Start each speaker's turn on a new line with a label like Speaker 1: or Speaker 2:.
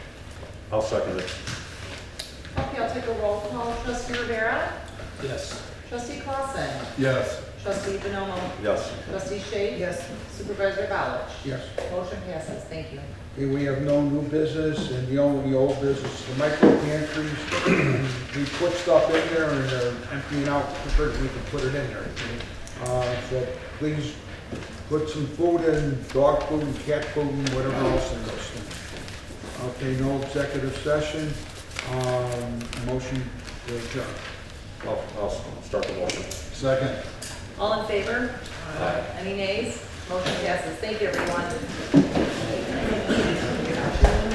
Speaker 1: I'll second it.
Speaker 2: Okay, I'll take a roll call. Trustee Rivera?
Speaker 3: Yes.
Speaker 2: Trustee Clausen?
Speaker 3: Yes.
Speaker 2: Trustee Bonomo?
Speaker 1: Yes.
Speaker 2: Trustee Shade?
Speaker 4: Yes.
Speaker 2: Supervisor Ballard?
Speaker 4: Yes.
Speaker 2: Motion passes, thank you.
Speaker 4: Okay, we have no new business, and the only old business, is the micro pantries, we put stuff in there and they're emptying out, preferred we can put it in there. Uh, so please put some food in, dog food, and cat food, and whatever else in those things. Okay, no executive session, um, motion to adjourn.
Speaker 1: I'll, I'll start the motion.
Speaker 4: Second.
Speaker 2: All in favor?
Speaker 1: Aye.
Speaker 2: Any nays? Motion passes, thank you, everyone.